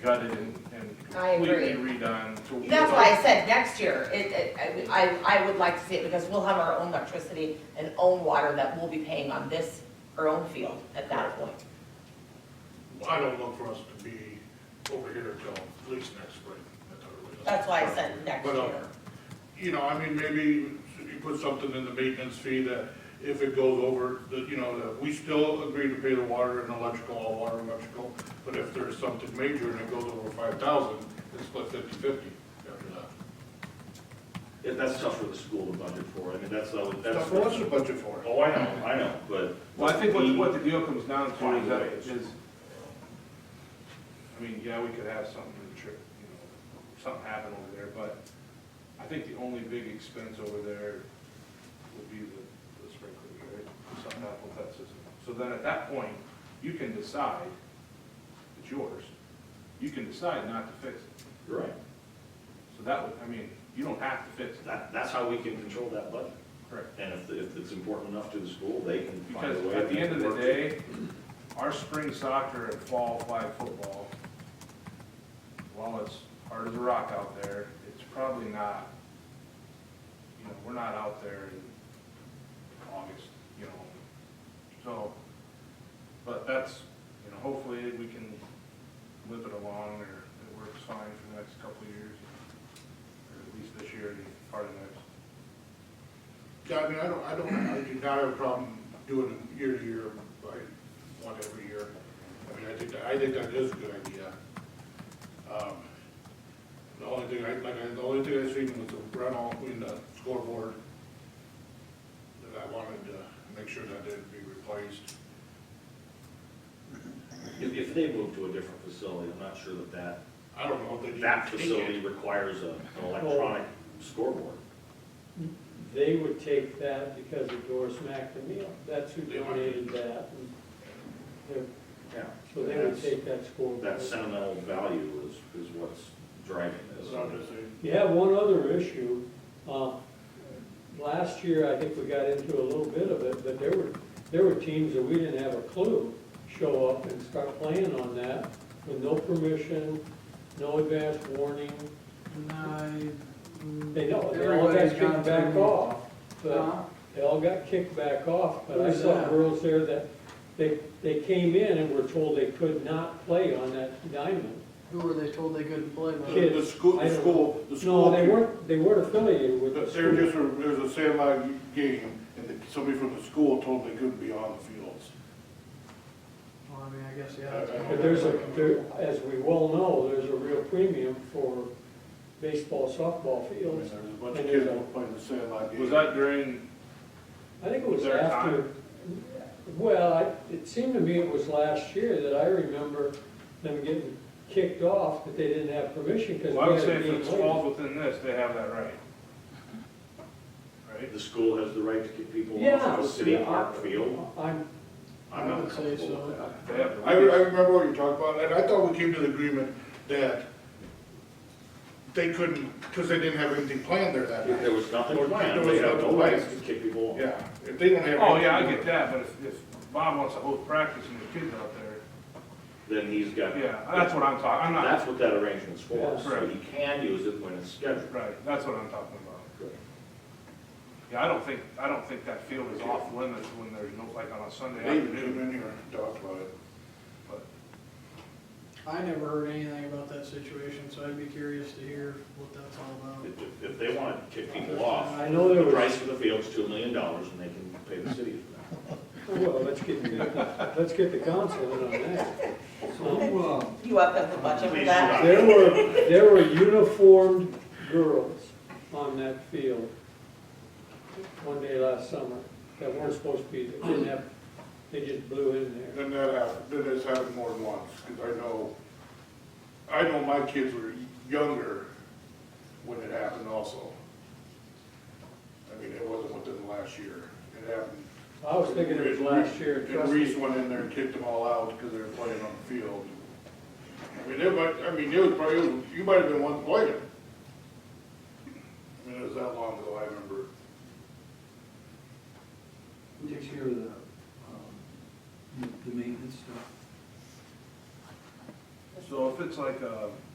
gutted and and I agree. completely redone to. That's why I said next year, it, it, I, I would like to see it because we'll have our own electricity and own water that we'll be paying on this, our own field at that point. I don't look for us to be over here till at least next spring. at the earliest. That's why I said next But, uh, year. You know, I mean, maybe you put something in the maintenance fee that if it goes over, that, you know, that we still agree to pay the water and electrical, all water and electrical, but if there's something major and it goes over five thousand, it's split fifty-fifty after that. Yeah, that's tough for the school to budget for, I mean, that's, uh, that's. That's what's the budget for? Oh, I know, I know, but. Well, I think we- what, what the deal comes down to is that, Ways. is, I mean, yeah, we could have something, to trip, you know, something happen over there, but I think the only big expense over there would be the, the sprinkler, right? If Something happened with that system. So then at that point, you can decide, it's yours, you can decide not to fix it. You're right, So that would, I mean, you don't have to fix it. that, that's how we can control that budget, Correct. and if, if it's important enough to the school, they can find Because a way. at the to end of the work it. day, our spring soccer and fall flag football, while it's hard as a rock out there, it's probably not, you know, we're not out there in August, you know, so, but that's, you know, hopefully we can whip it along or it works fine for the next couple of years, or at least this year and part of next. Yeah, I mean, I don't, I don't, I do not have a problem doing it year to year, by one every year. I mean, I think, I think that is a good idea. Um, The only thing, I like, I- the only thing I seen was the rental, I mean, the scoreboard, that I wanted to make sure that didn't be replaced. If, if they move to a different facility, I'm not sure that that, I don't know if they. that facility requires a- an electronic scoreboard. They would take that because the door smacked the meal. That's who donated that. and they- Yeah. So they would take that scoreboard. That sentimental value is, is what's driving this. That's what I'm just saying. You have one other issue. Uh, Last year, I think we got into a little bit of it, but there were, there were teams that we didn't have a clue show up and start playing on that with no permission, no advance warning. They know, they all got Everybody's gone kicked back through. off. But Huh? They all got kicked back off, but I Who's saw that? girls there that, they, they came in and were told they could not play on that diamond. Who were they told they couldn't play with? Kids. The the school, I the don't school, the school. No, they weren't, they weren't affiliated with the But There school. just, were- there was a sandlot game, and the- somebody from the school told they couldn't be on the fields. Well, I mean, I guess, yeah. Uh, that's- But there's a, there, as we well know, there's a real premium for baseball, softball I mean, fields. There's a bunch of kids that played the sandlot game. Was that during, I think it was Their after, time. well, I- it seemed to me it was last year that I remember them getting kicked off, that they didn't have permission because well, I would we had say a if game it later. falls within this, they have that right. Right? The school has the right to kick people Yeah. off of a city park field. I'm, I'm not I would say comfortable with so. that. They have the I, right. re- I remember what you talked about, and I thought we came to the agreement that they couldn't, because they didn't have anything planned there that If There night. was nothing There was planned, nothing they have no rights to planned. kick people off. Yeah, if they don't have. Oh, yeah, I anything- get that, but if, if Bob wants to hold practice and the kids out there, Then he's got. yeah, that's what I'm talking, I'm not, That's what that arrangement's for, Yeah. so he can use it when it's scheduled. right, that's what I'm talking about. Yeah, I don't think, I don't think that field is off limits when there's no, like on a Sunday They even afternoon, came in here and talked about it. but I never heard anything about that situation, so I'd be curious to hear what that's all about. If, if- if they want to kick people off, I know the there was. price for the field's two million dollars and they can pay the city for that. Well, let's get, the- let's get the council in on that. Um, You up at the budget for Please that? do There were, there were uniformed girls on that field one day last summer that weren't supposed to be, there. didn't have, they just blew in there. Then that happened, then this happened more than once, because I know, I know my kids were younger when it happened also. I mean, it wasn't within the last year, it happened. I was thinking it was last year, And trust me. Reese went in there and kicked them all out because they were playing on the field. I mean, it might, I mean, it was probably, you might have been one playing it. I mean, it was that long ago, I remember. Who takes care of the, um, the- the maintenance stuff? The So if it's like uh, a